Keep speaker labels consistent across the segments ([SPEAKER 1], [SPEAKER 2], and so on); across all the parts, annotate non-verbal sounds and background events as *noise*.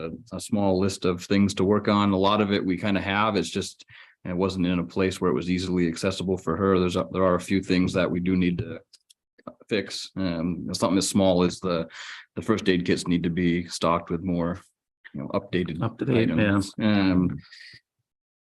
[SPEAKER 1] a, a small list of things to work on. A lot of it we kind of have. It's just it wasn't in a place where it was easily accessible for her. There's, a- there are a few things that we do need to fix. Um, something as small as the, the first aid kits need to be stocked with more, you know, updated.
[SPEAKER 2] Up to date, yeah.
[SPEAKER 1] items. Um,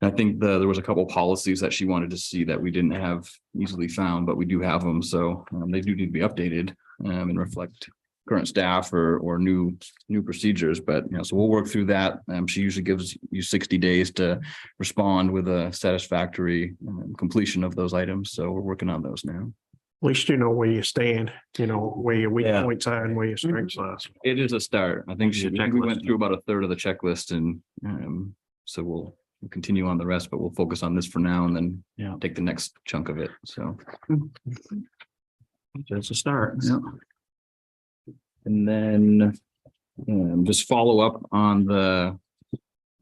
[SPEAKER 1] I think the, there was a couple policies that she wanted to see that we didn't have easily found, but we do have them. So um, they do need to be updated um, and reflect current staff or, or new, new procedures. But, you know, so we'll work through that. Um, she usually gives you sixty days to respond with a satisfactory um, completion of those items. So we're working on those now.
[SPEAKER 3] least you know where you stand, you know, where your weak
[SPEAKER 2] Yeah.
[SPEAKER 3] points are and where your strengths are.
[SPEAKER 1] It is a start. I think she,
[SPEAKER 2] Your
[SPEAKER 1] I think we went
[SPEAKER 2] checklist.
[SPEAKER 1] through about a third of the checklist and, um, so we'll we'll continue on the rest, but we'll focus on this for now and then
[SPEAKER 2] Yeah.
[SPEAKER 1] take the next chunk of it. So.
[SPEAKER 2] Just a start.
[SPEAKER 1] And then um, just follow up on the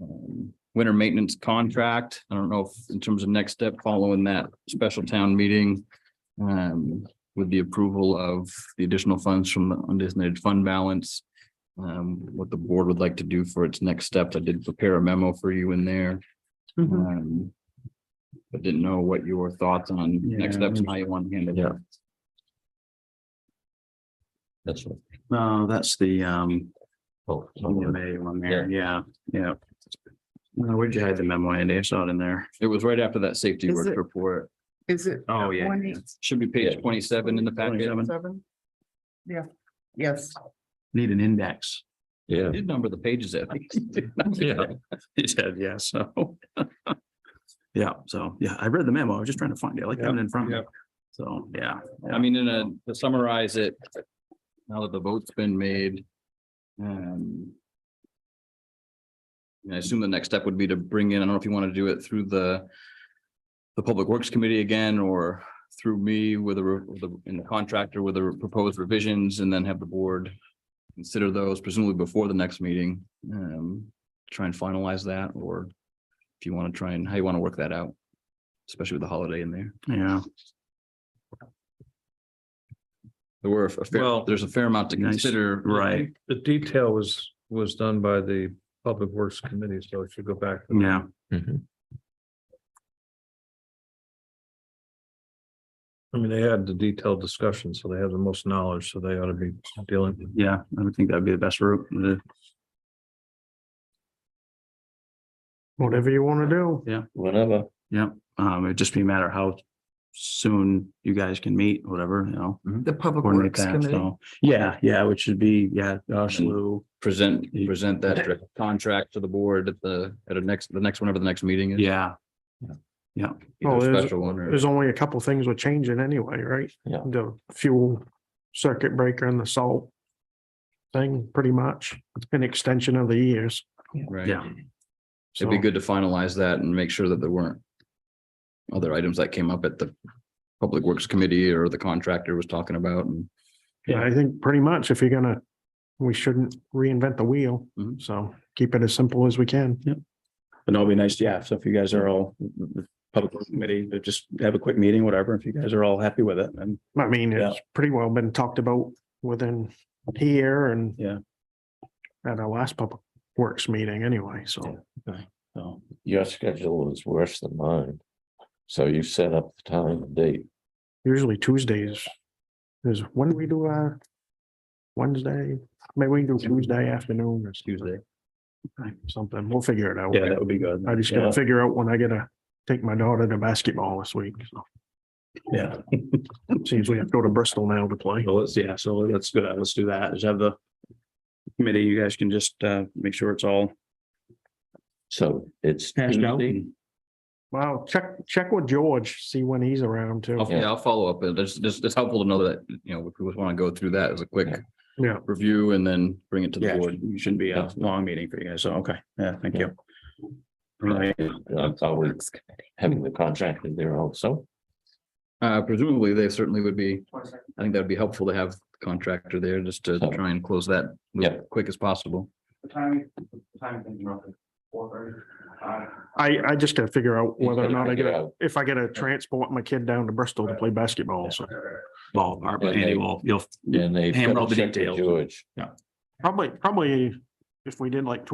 [SPEAKER 1] um, winter maintenance contract. I don't know if in terms of next step following that special town meeting um, with the approval of the additional funds from the undesignated fund balance. um, What the board would like to do for its next step. I did prepare a memo for you in there.
[SPEAKER 4] Mm-hmm.
[SPEAKER 2] Mhm.
[SPEAKER 1] um, But didn't know what your thoughts on next
[SPEAKER 2] Yeah.
[SPEAKER 1] steps and how you want to handle
[SPEAKER 2] Yeah.
[SPEAKER 1] it. That's right.
[SPEAKER 2] No, that's the, um,
[SPEAKER 1] Oh,
[SPEAKER 2] EMA one there, yeah, yeah. No, where'd you hide the memo, Andy? I saw it in there.
[SPEAKER 1] It was right after that safety
[SPEAKER 4] Is
[SPEAKER 1] work
[SPEAKER 4] it-
[SPEAKER 1] report.
[SPEAKER 4] Is it?
[SPEAKER 2] Oh, yeah.
[SPEAKER 4] One eight
[SPEAKER 1] Should be
[SPEAKER 2] Yeah.
[SPEAKER 1] page twenty-seven in the packet.
[SPEAKER 2] 27.
[SPEAKER 4] seven? Yeah, yes.
[SPEAKER 2] Need an index. *laughs*
[SPEAKER 1] I Did number the pages at least. *laughs*
[SPEAKER 2] Yeah, he said, yeah, so. *laughs* Yeah, so, yeah, I read the memo. I was just trying to find it. I like having it in front of me. So, yeah.
[SPEAKER 1] I mean, in a, to summarize it, now that the vote's been made, um. and I assume the next step would be to bring in, I don't know if you want to do it through the. The Public Works Committee again, or through me with a, re- with a- in the contractor with the proposed revisions and then have the board. Consider those presumably before the next meeting, um, try and finalize that, or if you want to try and, how you want to work that out. Especially with the holiday in there.
[SPEAKER 2] Yeah,
[SPEAKER 1] There were a fair,
[SPEAKER 5] Well-
[SPEAKER 1] there's a fair amount to
[SPEAKER 2] Nice.
[SPEAKER 1] consider.
[SPEAKER 2] right,
[SPEAKER 5] The detail was, was done by the Public Works Committee, so it should go back. to
[SPEAKER 2] yeah.
[SPEAKER 3] Mm-hmm.
[SPEAKER 5] I mean, they had the detailed discussion, so they have the most knowledge, so they ought to be dealing. with
[SPEAKER 2] Yeah, I would think that'd be the best route. Uh, The-
[SPEAKER 3] Whatever you want to do.
[SPEAKER 2] Yeah,
[SPEAKER 6] Whenever.
[SPEAKER 2] yeah. Um, it'd just be a matter of how soon you guys can meet, whatever, you know.
[SPEAKER 4] The Public
[SPEAKER 2] coordinate
[SPEAKER 4] Works
[SPEAKER 2] that.
[SPEAKER 4] Committee.
[SPEAKER 2] So, yeah, yeah, which should be, yeah, Josh, Lou,
[SPEAKER 1] Present, present that direct contract to the board at the, at a next, the next, whenever the next meeting is.
[SPEAKER 2] yeah,
[SPEAKER 1] Either
[SPEAKER 3] Oh, there's-
[SPEAKER 1] Special one or,
[SPEAKER 3] There's only a couple things we're changing anyway, right?
[SPEAKER 6] Yeah.
[SPEAKER 3] The fuel circuit breaker and the salt thing, pretty much, an extension of the years.
[SPEAKER 1] right?
[SPEAKER 2] yeah.
[SPEAKER 1] It'd be
[SPEAKER 3] So-
[SPEAKER 1] good to finalize that and make sure that there weren't other items that came up at the Public Works Committee or the contractor was talking about and.
[SPEAKER 3] Yeah, I think pretty much if you're gonna, we shouldn't reinvent the wheel,
[SPEAKER 2] Mm-hmm.
[SPEAKER 1] Mhm.
[SPEAKER 3] so keep it as simple as we can.
[SPEAKER 2] But no, it'd be nice, yeah, so if you guys are all, the public committee, but just have a quick meeting, whatever, if you guys are all happy with it, and
[SPEAKER 3] I mean,
[SPEAKER 2] Yeah.
[SPEAKER 3] it's pretty well been talked about within here and
[SPEAKER 2] Yeah.
[SPEAKER 3] at our last public works meeting anyway, so.
[SPEAKER 2] so.
[SPEAKER 6] Your schedule is worse than mine. So you set up the time and date.
[SPEAKER 3] Usually Tuesdays is when we do our Wednesday, maybe we do Tuesday afternoon or Tuesday. Something, we'll figure it out.
[SPEAKER 2] Yeah, that would be good.
[SPEAKER 3] I just
[SPEAKER 2] Yeah,
[SPEAKER 3] gotta figure out when I gotta take my daughter to basketball this week. so.
[SPEAKER 2] Yeah,
[SPEAKER 3] Seems we have to go to Bristol now to play.
[SPEAKER 2] so let's, yeah, so let's go, let's do that, just have the committee, you guys can just uh make sure it's all
[SPEAKER 6] So it's.
[SPEAKER 2] hashed out.
[SPEAKER 6] Tuesday.
[SPEAKER 3] Wow, check, check with George, see when he's around too.
[SPEAKER 1] I'll- Yeah, I'll follow up. It's just, it's- it's helpful to know that, you know, if we want to go through that as a quick
[SPEAKER 6] Yeah.
[SPEAKER 3] Yeah.
[SPEAKER 1] review and then bring it to the
[SPEAKER 2] Yeah,
[SPEAKER 1] board.
[SPEAKER 2] it shouldn't be a long meeting for you guys, so, okay, yeah, thank you. All right,
[SPEAKER 6] That's always having the contractor there also.
[SPEAKER 1] Uh, presumably, they certainly would be, I think that'd be helpful to have the contractor there just to
[SPEAKER 6] So-
[SPEAKER 1] try and close that loop
[SPEAKER 6] Yeah.
[SPEAKER 1] quick as possible.
[SPEAKER 3] I, I just gotta figure out whether or not I
[SPEAKER 6] Figure
[SPEAKER 3] gotta,
[SPEAKER 6] out.
[SPEAKER 3] if I gotta transport my kid down to Bristol to play basketball, so.
[SPEAKER 2] ball, but Andy will, you'll
[SPEAKER 6] And they.
[SPEAKER 2] Hammer all the
[SPEAKER 6] check with
[SPEAKER 2] details.
[SPEAKER 6] George.
[SPEAKER 3] Probably, probably if we did like two